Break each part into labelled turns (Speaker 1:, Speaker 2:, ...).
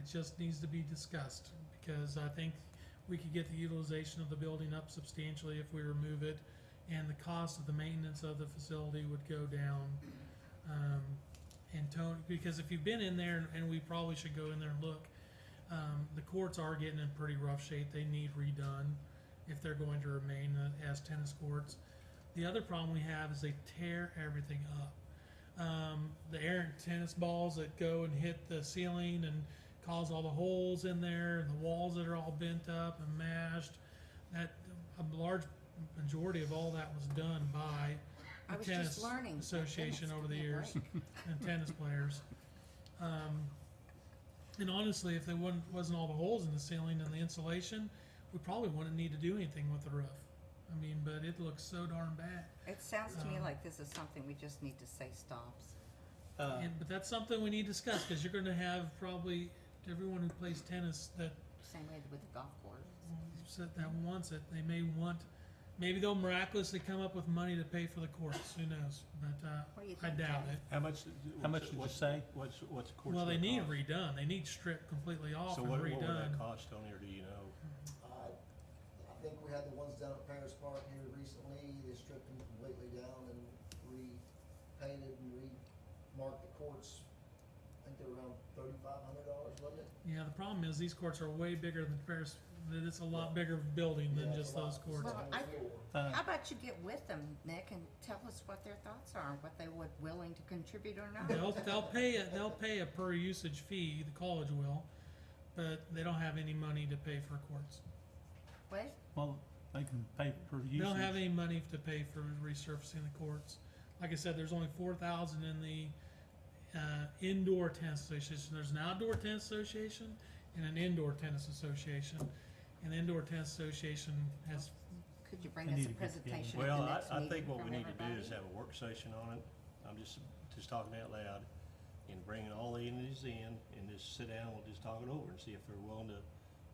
Speaker 1: just needs to be discussed, because I think we could get the utilization of the building up substantially if we remove it, and the cost of the maintenance of the facility would go down. Um, and Tony, because if you've been in there, and we probably should go in there and look, um, the courts are getting in pretty rough shape, they need redone if they're going to remain uh, as tennis courts. The other problem we have is they tear everything up. Um, the errant tennis balls that go and hit the ceiling and cause all the holes in there, and the walls that are all bent up and mashed. That a large majority of all that was done by
Speaker 2: I
Speaker 1: the
Speaker 2: was
Speaker 1: tennis
Speaker 2: just learning.
Speaker 1: association
Speaker 2: Goodness,
Speaker 1: over
Speaker 2: give
Speaker 1: the
Speaker 2: me a
Speaker 1: years
Speaker 2: break.
Speaker 1: and tennis players. Um, and honestly, if there wasn't, wasn't all the holes in the ceiling and the insulation, we probably wouldn't need to do anything with the roof. I mean, but it looks so darn bad.
Speaker 2: It sounds to me
Speaker 1: Um,
Speaker 2: like this is something we just need to say stops.
Speaker 3: Uh,
Speaker 1: And, but that's something we need to discuss because you're going to have probably everyone who plays tennis that
Speaker 2: Same way with the golf course.
Speaker 1: that that wants it. They may want, maybe they'll miraculously come up with money to pay for the courts. Who knows? But uh,
Speaker 2: What do you
Speaker 1: I
Speaker 2: think?
Speaker 1: doubt
Speaker 2: Jack?
Speaker 1: it.
Speaker 3: How much,
Speaker 4: How much did you
Speaker 3: what's,
Speaker 4: say?
Speaker 3: what's, what's the court's
Speaker 1: Well, they
Speaker 3: gonna
Speaker 1: need
Speaker 3: cost?
Speaker 1: redone. They need stripped completely off
Speaker 3: So
Speaker 1: and
Speaker 3: what, what
Speaker 1: redone.
Speaker 3: would that cost, Tony, or do you know?
Speaker 5: I, Uh, I think we had the ones down at Paris Park here recently, they stripped them completely down and repainted and re-marked the courts. I think they're around thirty-five hundred dollars, wasn't it?
Speaker 1: Yeah, the problem is these courts are way bigger than Paris. that It's a lot bigger building than
Speaker 5: Yeah,
Speaker 1: just
Speaker 5: it's a lot.
Speaker 1: those courts.
Speaker 2: Well,
Speaker 5: It's on the
Speaker 2: I-
Speaker 5: floor.
Speaker 4: Uh,
Speaker 2: How about you get with them, Nick, and tell us what their thoughts are, what they would willing to contribute or not?
Speaker 1: They'll, they'll pay a, they'll pay a per usage fee, the college will, but they don't have any money to pay for courts.
Speaker 2: What?
Speaker 4: well, they can pay per
Speaker 1: They
Speaker 4: usage.
Speaker 1: don't have any money to pay for resurfacing the courts. Like I said, there's only four thousand in the, uh, indoor tennis association. There's an outdoor tennis association and an indoor tennis association. And the indoor tennis association has,
Speaker 2: Could you bring
Speaker 4: I
Speaker 2: us a
Speaker 4: need to get together.
Speaker 2: presentation at
Speaker 3: Well,
Speaker 2: the
Speaker 3: I,
Speaker 2: next
Speaker 3: I
Speaker 2: meeting
Speaker 3: think what we
Speaker 2: from
Speaker 3: need to do is
Speaker 2: everybody?
Speaker 3: have a work session on it. I'm just, just talking out loud and bringing all the entities in and just sit down and we'll just talk it over and see if they're willing to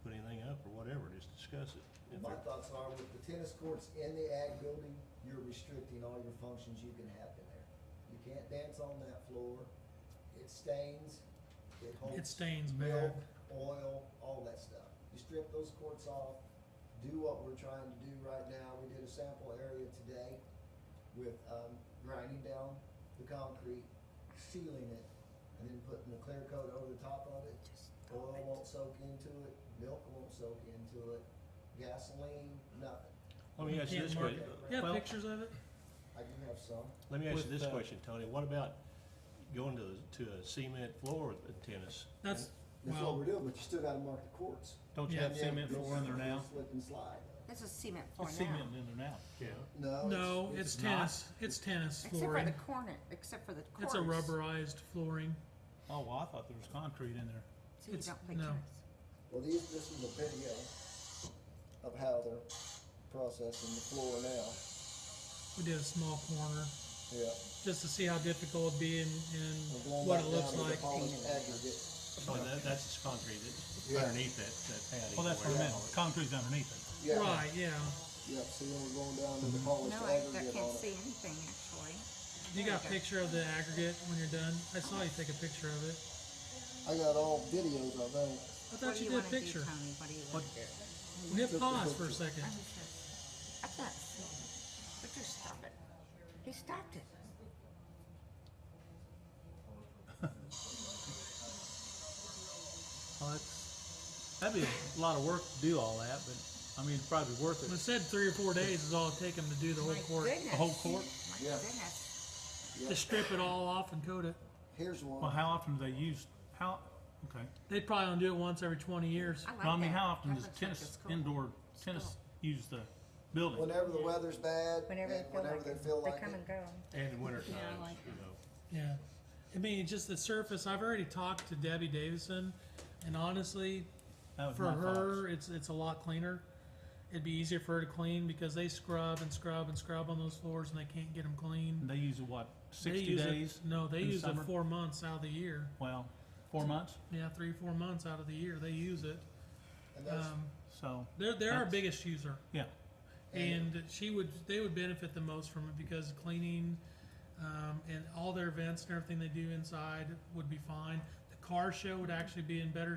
Speaker 3: put anything up or whatever, just discuss it. If
Speaker 5: My
Speaker 3: they're-
Speaker 5: thoughts are with the tennis courts in the ag building, you're restricting all your functions you can have in there. You can't dance on that floor, it stains, it holds.
Speaker 1: it stains
Speaker 5: milk,
Speaker 1: bad.
Speaker 5: oil, all that stuff. You strip those courts off, do what we're trying to do right now. We did a sample area today with um, grinding down the concrete, sealing it, and then putting the clear coat over the top of it. Oil won't soak into it, milk won't soak into it, gasoline, nothing.
Speaker 3: Let me
Speaker 1: You
Speaker 3: ask you
Speaker 1: can't
Speaker 3: this
Speaker 1: mark
Speaker 3: question.
Speaker 5: it.
Speaker 1: You have
Speaker 3: Well,
Speaker 1: pictures of it?
Speaker 5: I do have some.
Speaker 3: Let me ask
Speaker 4: With,
Speaker 3: you this
Speaker 4: uh,
Speaker 3: question, Tony. What about going to, to a cement floor with tennis?
Speaker 1: That's,
Speaker 5: That's
Speaker 1: Well-
Speaker 5: what we're doing, but you still gotta mark the courts.
Speaker 4: Don't you
Speaker 1: Yeah.
Speaker 4: have cement floor in there now?
Speaker 5: Slip and slide.
Speaker 2: This is cement floor
Speaker 4: It's
Speaker 2: now,
Speaker 4: cement in there now.
Speaker 3: Yeah.
Speaker 5: No.
Speaker 1: No, it's
Speaker 4: not.
Speaker 1: tennis, it's tennis
Speaker 2: except for the
Speaker 1: flooring.
Speaker 2: corner, except for the course.
Speaker 1: It's a rubberized flooring.
Speaker 4: Oh, well, I thought there was concrete in there.
Speaker 2: So you
Speaker 1: it's-
Speaker 2: don't play
Speaker 1: no.
Speaker 2: tennis.
Speaker 5: Well, these, this is a video of how they're processing the floor now.
Speaker 1: We did a small corner,
Speaker 5: Yeah.
Speaker 1: just to see how difficult it'd be and,
Speaker 5: We're
Speaker 1: and
Speaker 5: going
Speaker 1: what
Speaker 5: back
Speaker 1: it looks
Speaker 5: down to the
Speaker 1: like.
Speaker 5: polished aggregate.
Speaker 3: Oh, that, that's just concrete that's
Speaker 5: Yeah.
Speaker 3: underneath that, that patio.
Speaker 4: Well, that's what I
Speaker 3: where-
Speaker 4: meant. Concrete's underneath it.
Speaker 5: Yeah,
Speaker 1: Right, Mm-hmm. yeah.
Speaker 5: Yeah, see, we're going down to the polished
Speaker 2: No, I, I
Speaker 5: aggregate
Speaker 2: can't
Speaker 5: on
Speaker 2: see
Speaker 5: it.
Speaker 2: anything actually.
Speaker 1: You got a
Speaker 2: Okay.
Speaker 1: picture of the aggregate when you're done? I saw you take a picture of it.
Speaker 5: I got all videos, I think.
Speaker 1: I
Speaker 2: What
Speaker 1: thought
Speaker 2: do
Speaker 1: you
Speaker 2: you
Speaker 1: did
Speaker 2: wanna
Speaker 1: a
Speaker 2: do,
Speaker 1: picture.
Speaker 2: Tony? What do you wanna do?
Speaker 1: We hit pause for a second.
Speaker 2: I'm just, I'm not, but just stop it. He stopped it.
Speaker 4: Well, that's, that'd be a lot of work to do all that, but, I mean, it's probably worth
Speaker 1: It
Speaker 4: it.
Speaker 1: said three or four days is all it take 'em to do the whole
Speaker 2: My
Speaker 1: court.
Speaker 2: goodness.
Speaker 4: The whole court?
Speaker 2: My
Speaker 5: Yeah.
Speaker 2: goodness.
Speaker 1: To
Speaker 5: Yeah,
Speaker 1: strip it all off and coat it.
Speaker 5: here's
Speaker 4: Well,
Speaker 5: one.
Speaker 4: how often do they use, how, okay.
Speaker 1: They'd probably only do it once every twenty years.
Speaker 2: I like
Speaker 4: No, I mean,
Speaker 2: that.
Speaker 4: how often
Speaker 2: That
Speaker 4: does
Speaker 2: looks like it's
Speaker 4: tennis,
Speaker 2: cool.
Speaker 4: indoor tennis use the building?
Speaker 5: Whenever the weather's bad, and
Speaker 2: Whenever they feel
Speaker 5: whenever
Speaker 2: like
Speaker 5: they
Speaker 2: it,
Speaker 5: feel
Speaker 2: they
Speaker 5: like
Speaker 2: come
Speaker 5: it.
Speaker 2: and go.
Speaker 3: And in winter
Speaker 2: Yeah, I
Speaker 3: times,
Speaker 2: like
Speaker 3: you
Speaker 2: that.
Speaker 3: know.
Speaker 1: Yeah. I mean, just the surface, I've already talked to Debbie Davison and honestly,
Speaker 4: That was
Speaker 1: for
Speaker 4: my
Speaker 1: her, it's,
Speaker 4: thoughts.
Speaker 1: it's a lot cleaner. It'd be easier for her to clean because they scrub and scrub and scrub on those floors and they can't get them clean.
Speaker 4: And they use it, what,
Speaker 1: They
Speaker 4: sixty
Speaker 1: use it-
Speaker 4: days?
Speaker 1: No, they
Speaker 4: in the
Speaker 1: use it
Speaker 4: summer?
Speaker 1: four months out of the year.
Speaker 4: Well, four months,
Speaker 1: Yeah, three, four months out of the year, they use it.
Speaker 5: And that's,
Speaker 1: Um,
Speaker 4: so,
Speaker 1: they're, they're our
Speaker 4: That's-
Speaker 1: biggest user.
Speaker 4: yeah.
Speaker 1: and she would they would benefit the most from it because cleaning um, and all their events and everything they do inside would be fine. The car show would actually be in better